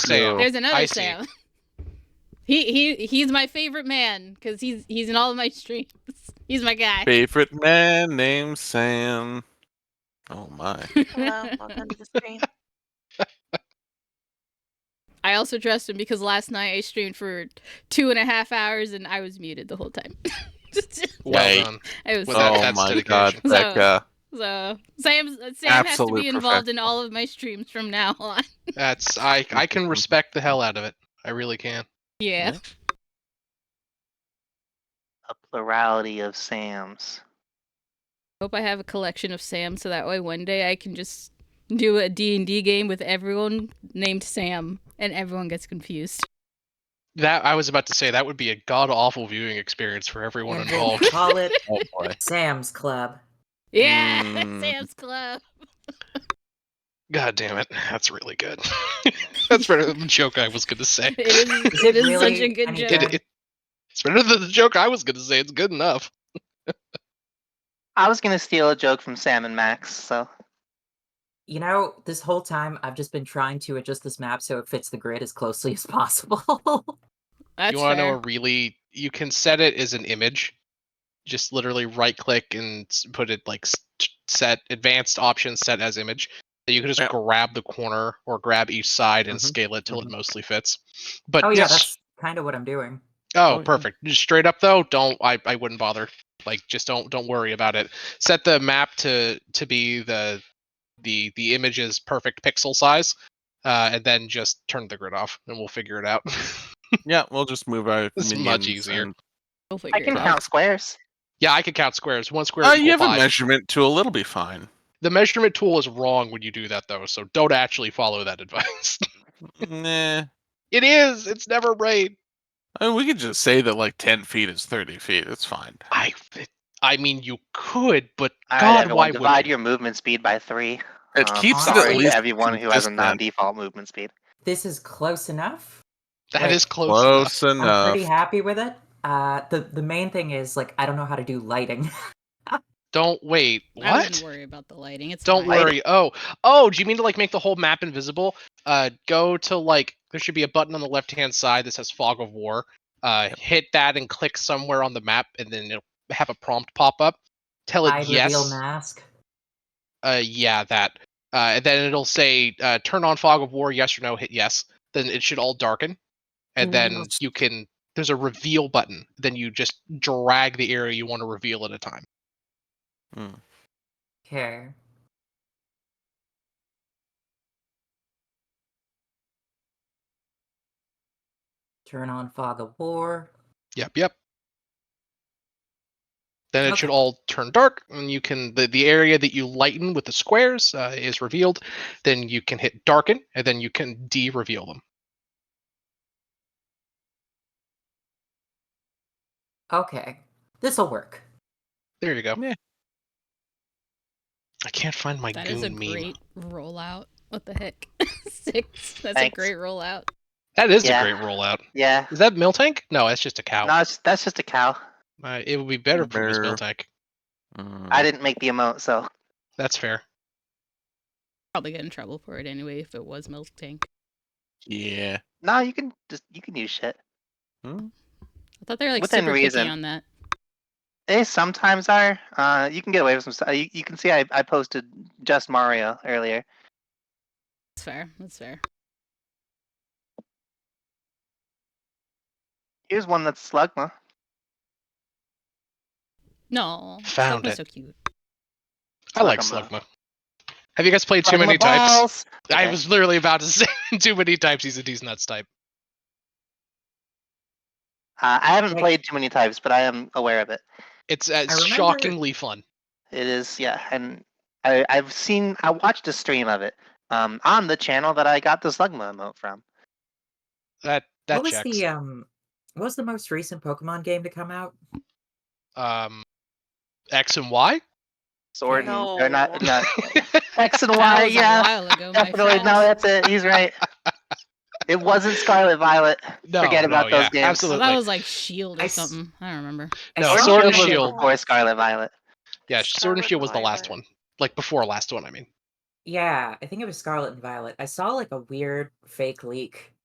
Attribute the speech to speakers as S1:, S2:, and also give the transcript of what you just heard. S1: Sam.
S2: There's another
S1: Oh, I see.
S2: Sam. He he he's my favorite man because he's he's in all of my streams. He's my guy.
S3: Favorite man named Sam. Oh my.
S4: Hello, welcome to the stream.
S2: I also trust him because last night I streamed for two and a half hours and I was muted the whole time.
S1: Well
S3: Hey.
S1: done.
S2: I was
S1: Well,
S2: so,
S1: that-
S3: oh
S1: that's
S3: my
S1: dedication.
S3: god,
S2: So-
S3: Becca.
S2: so Sam Sam has to
S3: Absolute
S2: be involved in all of my streams from now on.
S1: That's I I can respect the hell out of it. I really can.
S2: Yeah.
S4: A plurality of Sams.
S2: Hope I have a collection of Sam so that way one day I can just do a D&D game with everyone named Sam and everyone gets confused.
S1: That I was about to say that would be a god awful viewing experience for everyone
S5: And then
S1: involved.
S5: Call it
S3: Oh boy.
S5: Sam's Club.
S2: Yeah,
S3: Mm.
S2: Sam's Club.
S1: God damn it, that's really good. that's better than the joke I was gonna say.
S2: It is,
S5: Is
S2: it
S5: it
S2: is such a
S5: really
S2: good
S5: any
S2: joke.
S5: good?
S1: It, it, it's better than the joke I was gonna say. It's good enough.
S4: I was gonna steal a joke from Sam and Max, so
S5: You know, this whole time I've just been trying to adjust this map so it fits the grid as closely as possible. Oh,
S2: That's
S1: you want to know
S2: fair.
S1: a really? You can set it as an image. Just literally right click and s- put it like s- t- set advanced options set as image. So you can just
S3: Yeah.
S1: grab the corner or grab each side and
S3: Mhm,
S1: scale it till
S3: mhm.
S1: it mostly fits. But
S5: oh yeah,
S1: just-
S5: that's kind of what I'm doing.
S3: Oh,
S1: Oh,
S3: yeah.
S1: perfect. Just straight up though, don't I, I wouldn't bother. Like just don't don't worry about it. Set the map to to be the the the image's perfect pixel size. Uh, and then just turn the grid off and we'll figure it out.
S3: Yeah, we'll just move our
S1: It's much
S3: minions
S1: easier.
S3: and-
S2: We'll figure
S4: I can
S2: it out.
S4: count squares.
S1: yeah, I can count squares. One square
S3: Uh,
S1: equal
S3: you have a
S1: five.
S3: measurement tool, it'll be fine.
S1: the measurement tool is wrong when you do that though, so don't actually follow that advice.
S3: nah.
S1: it is. It's never right.
S3: I mean, we could just say that like ten feet is thirty feet. It's fine.
S1: I I mean you could, but
S4: All right,
S1: God,
S4: everyone,
S1: why would
S4: divide
S1: you?
S4: your movement speed by three.
S3: It
S4: Um,
S3: keeps it
S4: sorry
S3: at
S4: to
S3: least
S4: everyone who has a
S3: consistent.
S4: non-default movement speed.
S5: This is close enough.
S1: That
S5: like,
S1: is close. enough.
S3: close
S5: I'm
S3: enough.
S5: pretty happy with it. Uh, the the main thing is like I don't know how to do lighting.
S1: Don't wait.
S2: I
S1: What?
S2: wouldn't worry about the lighting. It's
S1: Don't
S2: fine.
S1: worry. Oh, oh, do you mean to like make the whole map invisible? Uh, go to like there should be a button on the left hand side that says Fog of War. Uh, hit that and click somewhere on the map, and then it'll have a prompt pop up. Tell it
S5: I reveal
S1: yes.
S5: mask.
S1: Uh, yeah, that. Uh, and then it'll say uh, turn on Fog of War. Yes or no. Hit yes. Then it should all darken, and
S2: Mm-hmm.
S1: then
S3: Yes.
S1: you can. There's a reveal button. Then you just drag the area you want to reveal at a time.
S5: Okay. Turn on fog of war.
S1: Yep, yep. Then it should
S5: Okay.
S1: all turn dark, and you can the, the area that you lighten with the squares uh, is revealed. Then you can hit darken, and then you can de-reveal them.
S5: Okay, this'll work.
S1: There you go.
S3: Yeah.
S1: I can't find my
S2: That
S1: goon
S2: is a
S1: meme.
S2: great rollout. What the heck? Six. That's a
S4: Thanks.
S2: great rollout.
S1: That is
S4: Yeah.
S1: a great rollout.
S4: Yeah.
S1: Is that Miltank? No, that's just a cow.
S4: No, it's, that's just a cow.
S1: uh, it would be better if it was
S3: Bear.
S1: Miltank.
S3: Mm,
S4: I didn't make the emote, so
S1: That's fair.
S2: Probably get in trouble for it anyway if it was milk tank.
S3: Yeah.
S4: no, you can just you can use shit.
S2: I thought they were like
S4: Within
S2: super
S4: reason.
S2: picky on that.
S4: They sometimes are. Uh, you can get away with some stuff. You, you can see I, I posted just Mario earlier.
S2: That's fair. That's fair.
S4: Here's one that's Slugma.
S2: No.
S1: Found
S2: Slugma's
S1: it.
S2: So cute.
S1: I like
S4: Slugma.
S1: Slugma. Have you guys played too
S4: Slugma
S1: many types?
S4: balls!
S1: I
S4: Okay.
S1: was literally about to say too many types. He's a decent nuts type.
S4: Uh, I haven't
S5: Like-
S4: played too many types, but I am aware of it.
S1: It's uh,
S5: remember-
S1: shockingly fun.
S4: It is, yeah, and I, I've seen, I watched a stream of it um, on the channel that I got the Slugma emote from.
S1: That that
S5: what was
S1: checks.
S5: the um? What was the most recent Pokemon game to come out?
S1: um X and Y?
S4: Sword, and, or not,
S6: No.
S4: not X and
S2: That
S4: Y,
S2: was
S4: yeah,
S2: A while ago, my
S4: definitely.
S2: friend.
S4: No, that's it. He's right. it wasn't Scarlet Violet.
S1: No,
S4: Forget
S1: no,
S4: about those
S1: yeah,
S4: games.
S2: Well,
S1: Absolutely.
S2: that was like Shield or
S5: I s-
S2: something. I don't remember.
S5: I
S1: No,
S5: still
S1: Sword and
S5: don't know-
S1: Shield.
S4: Or Scarlet Violet.
S1: yeah, Sword and
S6: Scarlet
S1: Shield was the last
S6: Violet.
S1: one. Like before last one, I mean.
S5: Yeah, I think it was Scarlet and Violet. I saw like a weird fake leak